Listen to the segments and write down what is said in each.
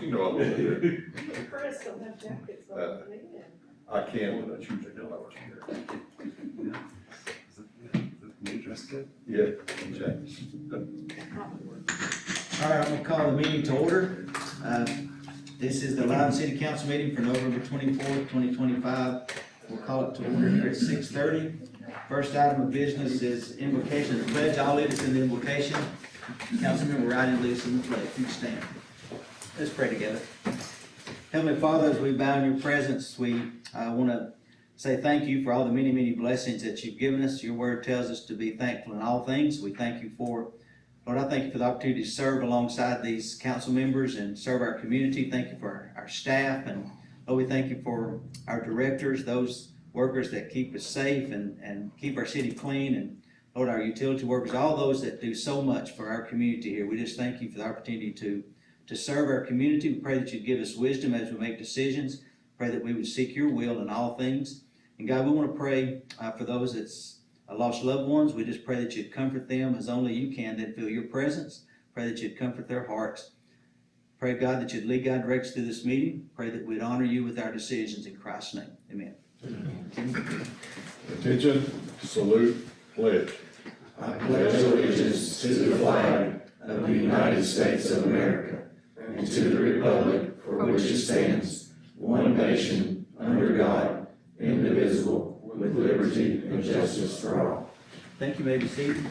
You know, I love it. The press don't have jackets on, Uh, man. I can, but I choose to not. New dress code? Yeah, exactly. All right, I'm gonna call the meeting to order. Uh, This is the Loudoun City Council meeting for November twenty-fourth, twenty twenty-five. We'll call it to order here at six thirty. First item of business is invocation of the pledge. I'll lead us in the invocation. Councilmember Ryden leads us in the pledge. You stand. Let's pray together. Heavenly Father, as we bow in your presence, we want to say thank you for all the many, many blessings that you've given us. Your word tells us to be thankful in all things. We thank you for it. Lord, I thank you for the opportunity to serve alongside these council members and serve our community. Thank you for our staff and Lord, we thank you for our directors, those workers that keep us safe and, and keep our city clean and Lord, our utility workers, all those that do so much for our community here. We just thank you for the opportunity to, to serve our community. We pray that you'd give us wisdom as we make decisions. Pray that we would seek your will in all things. And God, we want to pray uh, for those that's uh, lost loved ones. We just pray that you'd comfort them as only you can, that feel your presence. Pray that you'd comfort their hearts. Pray, God, that you'd lead God directs through this meeting. Pray that we'd honor you with our decisions in Christ's name. Amen. Attention, salute, pledge. I pledge allegiance to the flag of the United States of America and to the republic for which it stands, one nation, under God, indivisible, with liberty and justice for all. Thank you, Maybe Steve.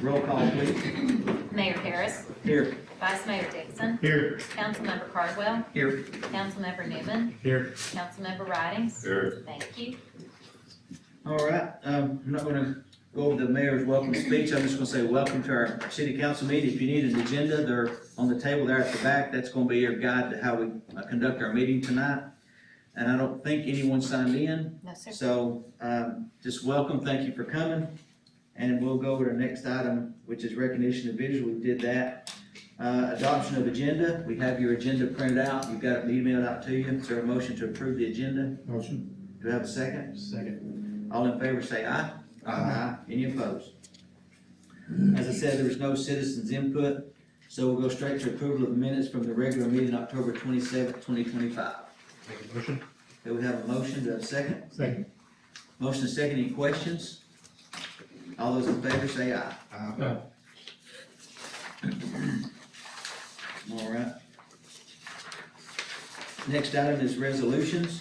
Roll call, please. Mayor Harris, Here. Vice Mayor Dixon, Here. Councilmember Cardwell, Here. Councilmember Newman, Here. Councilmember Ridings. Here. Thank you. All right, um, I'm not gonna go over the mayor's welcome speech, I'm just gonna say, welcome to our city council meeting. If you need an agenda, they're on the table there at the back, that's gonna be your guide to how we uh, conduct our meeting tonight. And I don't think anyone signed in, No, sir. so, um, just welcome, thank you for coming. And we'll go over to the next item, which is recognition of visual, we did that. Uh, adoption of agenda, we have your agenda printed out, you've got it emailed out to you, is there a motion to approve the agenda? Motion. Do we have a second? Second. All in favor say aye. Aye. Any opposed? As I said, there was no citizens input, so we'll go straight to approval of the minutes from the regular meeting, October twenty-seventh, twenty twenty-five. Make a motion. Do we have a motion, do we have a second? Second. Motion and second, any questions? All those in favor say aye. Aye. All right. Next item is resolutions.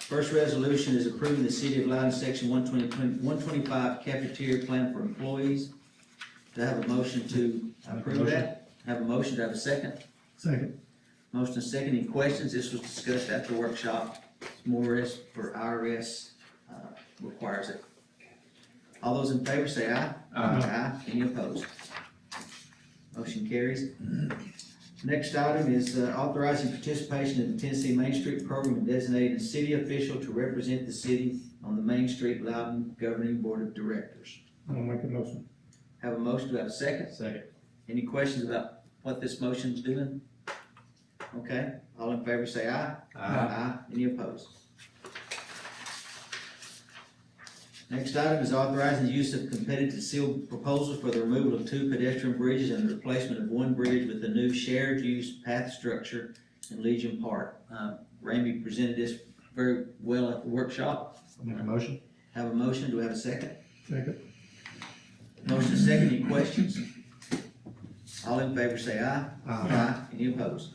First resolution is approving the City of Loudon Section 120 125 cafeteria plan for employees. Do I have a motion to approve that? Have a motion, to have a second? Second. Motion and second, any questions? This was discussed at the workshop. It's More is for IRS, uh, requires it. All those in favor say aye. Aye. Any opposed? Motion carries. Next item is uh, authorizing participation in the Tennessee Main Street Program and designating a city official to represent the city on the Main Street Loudon Governing Board of Directors. I'll make a motion. Have a motion, do I have a second? Second. Any questions about what this motion's doing? Okay, all in favor say aye. Uh, Aye. Uh, Any opposed? Next item is authorizing the use of competitive sealed proposals for the removal of two pedestrian bridges and the replacement of one bridge with a new shared use path structure in Legion Park. Um, Ramey presented this very well at the workshop. I'll make a motion. Have a motion, do we have a second? Second. Motion is second, any questions? All in favor say aye. Uh, Aye. Aye. Any opposed?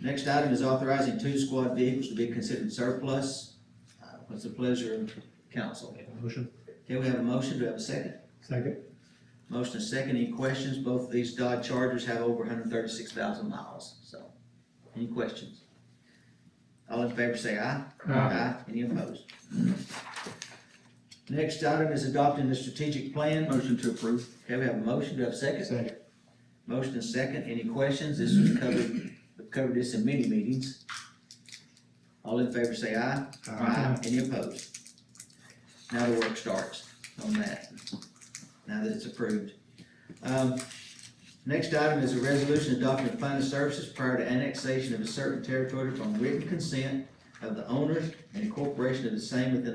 Next item is authorizing two squad vehicles to be considered surplus. Uh, What's the pleasure of council? Motion. Okay, we have a motion, do we have a second? Second. Motion is second, any questions? Both of these Dodge Chargers have over hundred thirty-six thousand miles, so, any questions? All in favor say aye. Any opposed? Next item is adopting the strategic plan. Motion to approve. Okay, we have a motion, do we have a second? Second. Motion and second, any questions? This was covered, we've covered this in many meetings. All in favor say aye. Any opposed? Now the work starts on that, now that it's approved. Um, Next item is a resolution adopting fund services prior to annexation of a certain territory from written consent of the owners and incorporation of the same within